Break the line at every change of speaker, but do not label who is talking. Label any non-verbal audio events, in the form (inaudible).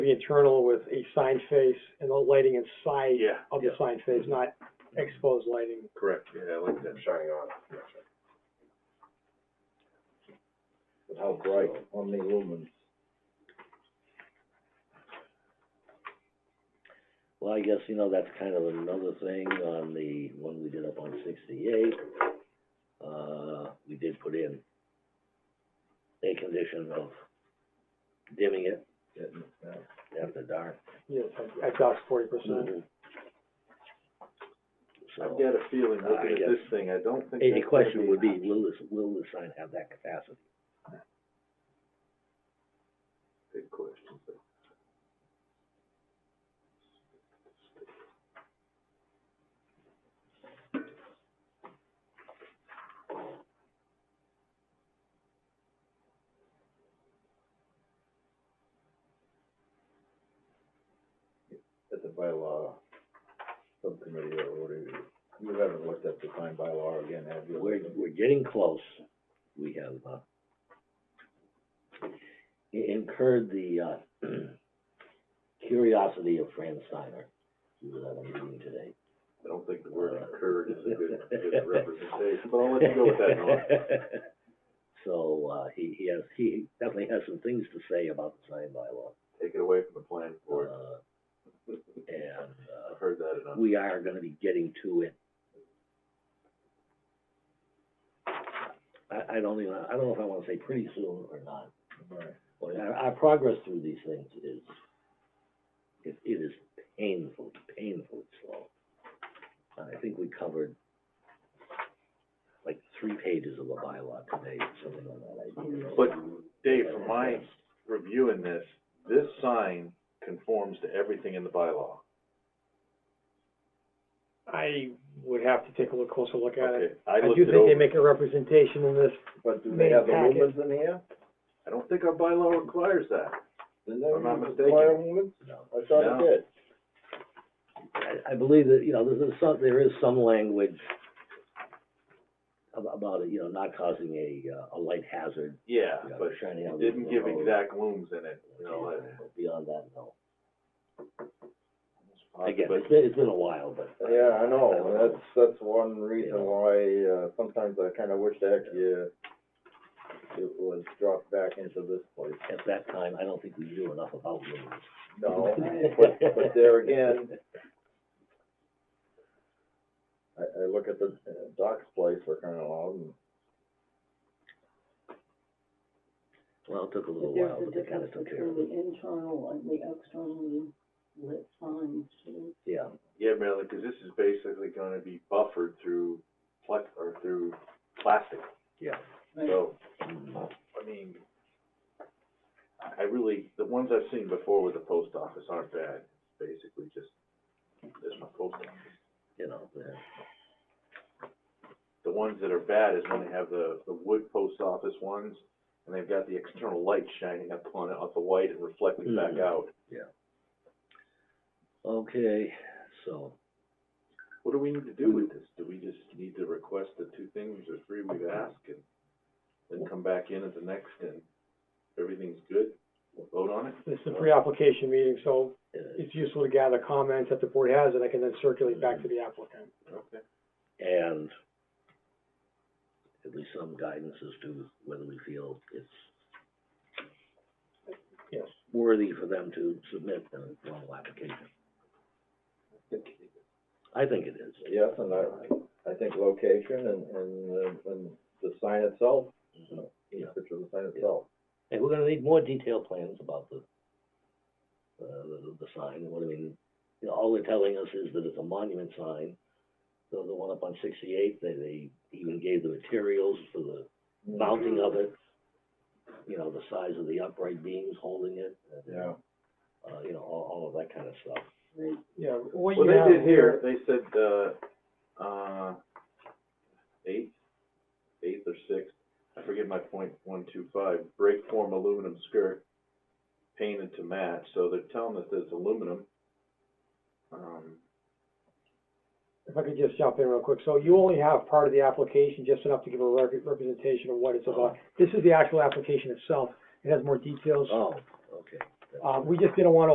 the internal with a sign face and the lighting inside
Yeah,
of the sign face, not exposed lighting.
correct, yeah, I like that.
shining on.
But how bright on the lumens?
Well, I guess, you know, that's kind of another thing on the one we did up on sixty-eight. Uh, we did put in a condition of dimming it
getting it back.
after dark.
Yes, I- I doubt forty percent.
Mm-hmm.
So,
I've got a feeling,
Uh,
looking
yeah.
at this thing, I don't think.
any
that's gonna
question would be, will this, will the sign have that capacity?
a Big question, but
At the bylaw subcommittee or whatever, you haven't looked at the sign bylaw again, have you?
We're, we're getting close. We have, uh, i- incurred the, uh, (clears throat) curiosity of Fran Steiner, who was at a meeting today.
I don't think the word incurred is a good,
(laughs)
good representation, but I'll let you go with that, Norm.
(laughs) So, uh, he, he has, he definitely has some things to say about the sign bylaw.
Take it away from the planning board,
Uh, And,
I've heard that
uh,
enough.
we are gonna be getting to it. I, I don't even, I don't know if I wanna say pretty soon or not.
Right.
Well, our, our progress through these things is, it, it is painful, painfully slow. And I think we covered like three pages of the bylaw today, or something on that idea.
But Dave, from my reviewing this, this sign conforms to everything in the bylaw.
I would have to take a look closer look at it.
Okay, I
I
looked
do
it
think they
over,
make a representation in this.
But do they have the
Main packet.
lumens in here?
I don't think our bylaw requires that.
Didn't
I'm not
they require lumens?
No.
I thought
No.
it did.
I, I believe that, you know, there- there's some, there is some language ab- about, it, you know, not causing a, uh, a light hazard,
Yeah,
you know,
but
shining
it
out.
didn't
the
give
road.
exact looms in it, you know, I-
But Beyond that, no.
Uh,
Again,
but-
it's been, it's been a while, but.
Yeah, I know,
don't
Oh, that's, that's one reason
Yeah.
why, uh, sometimes I kinda wish that you, it was dropped back into this place.
At that time, I don't think we knew enough about lumens. (laughs)
No, but, but there again, I, I look at the uh, Doc's place, we're kinda loud, and
Well, it took a little
But
while,
there's a
but they kind of
difference
took care
between
of it.
the internal and the externally lit signs, too.
Yeah,
Yeah, Marilyn, because this is basically gonna be buffered through plex, or through plastic,
yeah.
so,
Mm.
I mean, I- I really, the ones I've seen before with the post office aren't bad, It's basically just, there's my post office.
You know, yeah.
The ones that are bad is when they have the, the wood post office ones, and they've got the external light shining up on it, off the white and reflecting back
Mhm.
out.
Okay, so,
What do we need to do with this? Do we just need to request the two things or three we've asked and then come back in at the next and everything's good? We'll vote on it?
This is a pre-application meeting, so
uh,
it's useful to gather comments that the board has, and I can then circulate back to the applicant.
Okay.
and at least some guidance as to whether we feel it's
Yes.
worthy for them to submit a formal application. I think it is.
yes, and I, I think location and, and, uh, and the sign itself,
Yeah.
the picture of the sign itself.
Hey, we're gonna need more detailed plans about the, uh, the, the sign, what I mean, you know, all they're telling us is that it's a monument sign. The, the one up on sixty-eight, they, they even gave the materials for the mounting of it, you know, the size of the upright beams holding it, and,
Yeah,
uh, you know, all, all of that kind of stuff.
Yeah, what
Well,
you
they
have
did
here,
here, they said, uh, uh, eighth, eighth or sixth, I forget my point, one, two, five, break form aluminum skirt painted to match, so they're telling us that it's aluminum. Um,
if I could just jump in real quick, so you only have part of the application, just enough to give a rep- representation of what it's about. This is the actual application itself, it has more details,
Oh, okay.
uh, we just didn't wanna